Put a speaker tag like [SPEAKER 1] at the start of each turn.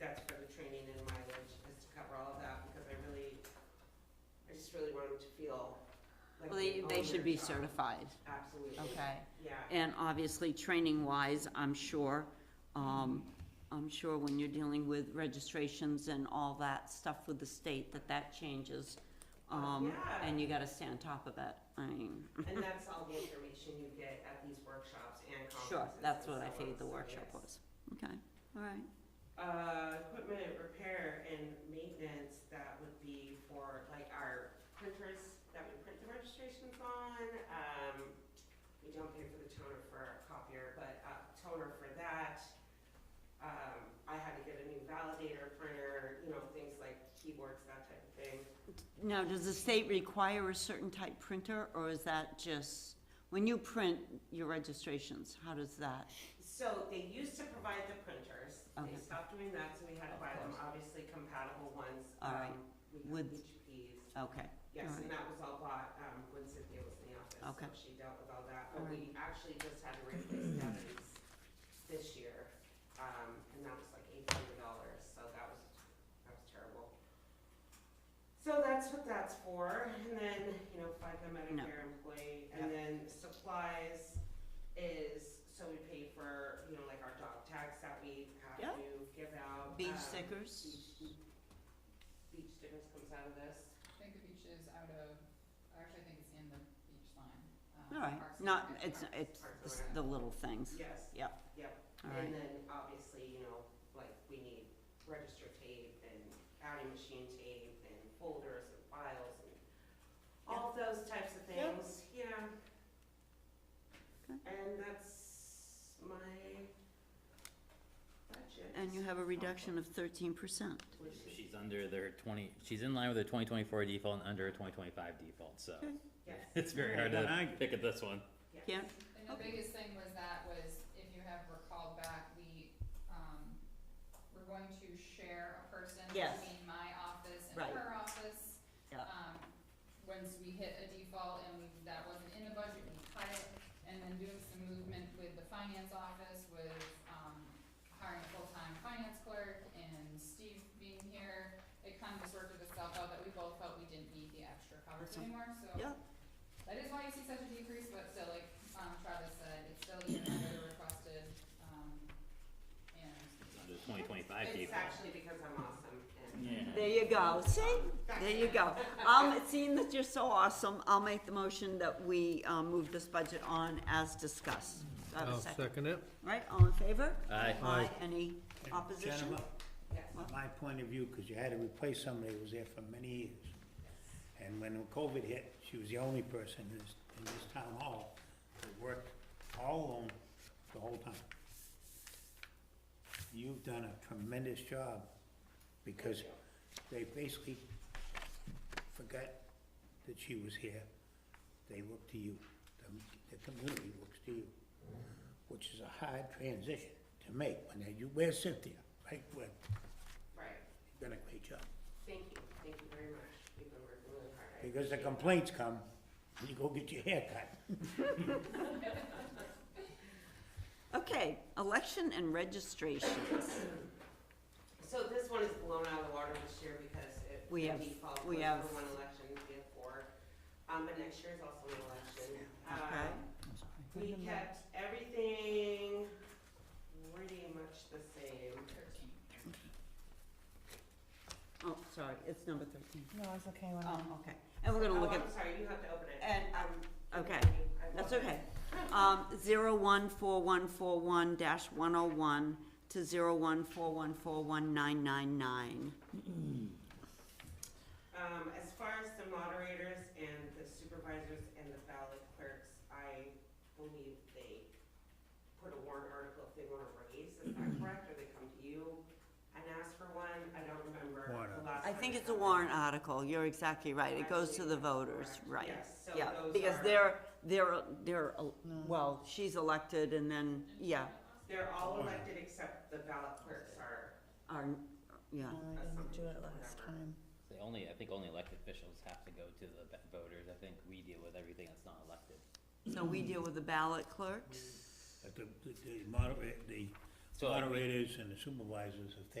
[SPEAKER 1] that's for the training and mileage, is to cover all of that, because I really, I just really want them to feel like
[SPEAKER 2] Well, they,
[SPEAKER 1] own
[SPEAKER 2] they should
[SPEAKER 1] their
[SPEAKER 2] be
[SPEAKER 1] job.
[SPEAKER 2] certified,
[SPEAKER 1] Absolutely.
[SPEAKER 2] okay?
[SPEAKER 1] Yeah.
[SPEAKER 2] And obviously, training-wise, I'm sure, um, I'm sure when you're dealing with registrations and all that stuff with the state, that that changes. Um,
[SPEAKER 1] Yeah.
[SPEAKER 2] and you gotta stay on top of it, I mean,
[SPEAKER 1] And that's all the information you get at these workshops and conferences.
[SPEAKER 2] sure, that's
[SPEAKER 1] and
[SPEAKER 2] what I
[SPEAKER 1] so
[SPEAKER 2] figured the
[SPEAKER 1] on, so
[SPEAKER 2] workshop
[SPEAKER 1] yes.
[SPEAKER 2] was, okay, all right.
[SPEAKER 1] Uh, equipment repair and maintenance, that would be for like our printers that we print the registrations on. Um, we don't pay for the toner for our copier, but, uh, toner for that. Um, I had to get a new validator printer, you know, things like keyboards, that type of thing.
[SPEAKER 2] Now, does the state require a certain type printer, or is that just, when you print your registrations, how does that?
[SPEAKER 1] So they used to provide the printers, they
[SPEAKER 2] Okay.
[SPEAKER 1] stopped doing that, so we had to
[SPEAKER 2] Of
[SPEAKER 1] buy them,
[SPEAKER 2] course.
[SPEAKER 1] obviously compatible ones.
[SPEAKER 2] All right.
[SPEAKER 1] Um, We have
[SPEAKER 2] With-
[SPEAKER 1] HPs.
[SPEAKER 2] Okay,
[SPEAKER 1] Yes,
[SPEAKER 2] All
[SPEAKER 1] and that was all bought, um, when Cynthia was in the office, so
[SPEAKER 2] Okay.
[SPEAKER 1] she dealt with all that,
[SPEAKER 2] All
[SPEAKER 1] but we actually just had to replace Devin's this year. Um, and that was like eight hundred dollars, so that was, that was terrible. So that's what that's for, and then, you know, FICA Medicare employee, and then supplies is, so we pay for, you know, like our dog tags that we have
[SPEAKER 2] Yeah.
[SPEAKER 1] to give out.
[SPEAKER 2] beach
[SPEAKER 1] um,
[SPEAKER 2] stickers?
[SPEAKER 1] beach- Beach stickers comes out of this.
[SPEAKER 3] I think the beach is out of, actually, I think it's in the beach line. um,
[SPEAKER 2] All right,
[SPEAKER 3] Parks and
[SPEAKER 2] not,
[SPEAKER 3] Rec.
[SPEAKER 2] it's, it's it's the little things,
[SPEAKER 1] Yes.
[SPEAKER 2] Yep.
[SPEAKER 1] Yep,
[SPEAKER 2] all
[SPEAKER 1] and
[SPEAKER 2] right,
[SPEAKER 1] then obviously, you know, like we need register tape and adding machine tape and folders and files and all those types of
[SPEAKER 2] Yep.
[SPEAKER 1] things, yeah.
[SPEAKER 2] Okay.
[SPEAKER 1] And that's my budget.
[SPEAKER 2] and you have a reduction of thirteen percent.
[SPEAKER 1] Which is-
[SPEAKER 4] She's under their twenty, she's in line with her twenty twenty-four default and under her twenty twenty-five default, so
[SPEAKER 2] Okay.
[SPEAKER 1] yes,
[SPEAKER 4] it's very hard to pick at this one.
[SPEAKER 1] yes.
[SPEAKER 2] Yeah.
[SPEAKER 3] And the
[SPEAKER 2] Okay.
[SPEAKER 3] biggest thing was that was, if you have recalled back, we, um, we're going to share a person
[SPEAKER 2] Yes.
[SPEAKER 3] between my office and
[SPEAKER 2] Right.
[SPEAKER 3] her office.
[SPEAKER 2] Yeah.
[SPEAKER 3] Um, once we hit a default and we, that wasn't in the budget, we cut it, and then doing some movement with the finance office with, um, hiring a full-time finance clerk and Steve being here, it kind of just worked itself out that we both felt we didn't need the extra coverage
[SPEAKER 2] Awesome.
[SPEAKER 3] anymore, so.
[SPEAKER 2] Yeah.
[SPEAKER 3] That is why you see such a decrease, but still, like, um, Travis said, it's still even under the requested, um, and.
[SPEAKER 4] It's Under the twenty twenty-five
[SPEAKER 1] It's
[SPEAKER 4] default.
[SPEAKER 1] actually because I'm awesome and.
[SPEAKER 2] There you go, see, there you go. Um, seeing that you're so awesome, I'll make the motion that we, um, move this budget on as discussed. Do I have a
[SPEAKER 5] I'll second it.
[SPEAKER 2] Right, all in favor?
[SPEAKER 4] Aye.
[SPEAKER 2] Aye,
[SPEAKER 5] Aye.
[SPEAKER 2] any opposition?
[SPEAKER 6] Gentlemen,
[SPEAKER 1] Yes.
[SPEAKER 6] my point of view, because you had to replace somebody who was there for many years. And when COVID hit, she was the only person in this, in this town hall that worked all alone the whole time. You've done a tremendous job, because they basically forgot that she was here. They look to you, the, the community looks to you, which is a hard transition to make, when they- you, where's Cynthia, right, where,
[SPEAKER 1] Right,
[SPEAKER 6] you've done a great job.
[SPEAKER 1] thank you, thank you very much, you've been working really hard. I
[SPEAKER 6] Because
[SPEAKER 1] appreciate
[SPEAKER 6] the
[SPEAKER 1] that.
[SPEAKER 6] complaints come, and you go get your hair cut.
[SPEAKER 2] Okay, election and registrations,
[SPEAKER 1] So this one is blown out of the water this year because it,
[SPEAKER 2] We
[SPEAKER 1] the
[SPEAKER 2] have-
[SPEAKER 1] default
[SPEAKER 2] we
[SPEAKER 1] was
[SPEAKER 2] have-
[SPEAKER 1] for one election, we have four. Um, but next year is also an election.
[SPEAKER 2] okay?
[SPEAKER 1] Um, We kept everything pretty much the same.
[SPEAKER 3] Thirteen.
[SPEAKER 2] Oh, sorry, it's number thirteen.
[SPEAKER 7] No, it's okay when
[SPEAKER 2] Oh, okay, and we're gonna look
[SPEAKER 1] Oh,
[SPEAKER 2] at,
[SPEAKER 1] I'm sorry, you have to open it.
[SPEAKER 2] And, uh,
[SPEAKER 1] um.
[SPEAKER 2] okay.
[SPEAKER 1] I will.
[SPEAKER 2] that's okay. Um, zero one four one four one dash one oh one to zero one four one four one nine nine nine.
[SPEAKER 1] Um, as far as the moderators and the supervisors and the ballot clerks, I believe they put a warrant article if they wanna raise, is that correct, or they come to you and ask for one, I don't remember
[SPEAKER 6] Warrant
[SPEAKER 1] the last
[SPEAKER 2] I
[SPEAKER 1] time
[SPEAKER 2] think
[SPEAKER 1] it
[SPEAKER 2] it's a
[SPEAKER 1] happened.
[SPEAKER 2] warrant article, you're exactly right, it goes to the voters, right.
[SPEAKER 1] Yes, so
[SPEAKER 2] Yeah,
[SPEAKER 1] those
[SPEAKER 2] because
[SPEAKER 1] are-
[SPEAKER 2] they're, they're, they're, el- well, she's elected and then, yeah,
[SPEAKER 1] They're all elected except the ballot clerks are,
[SPEAKER 2] are, yeah,
[SPEAKER 7] I didn't do it last time.
[SPEAKER 4] They only, I think only elected officials have to go to the v- voters. I think we deal with everything that's not elected.
[SPEAKER 2] so we deal with the ballot clerks?
[SPEAKER 6] But the, the- the moderator, the
[SPEAKER 4] So like we-
[SPEAKER 6] moderators and the supervisors, if they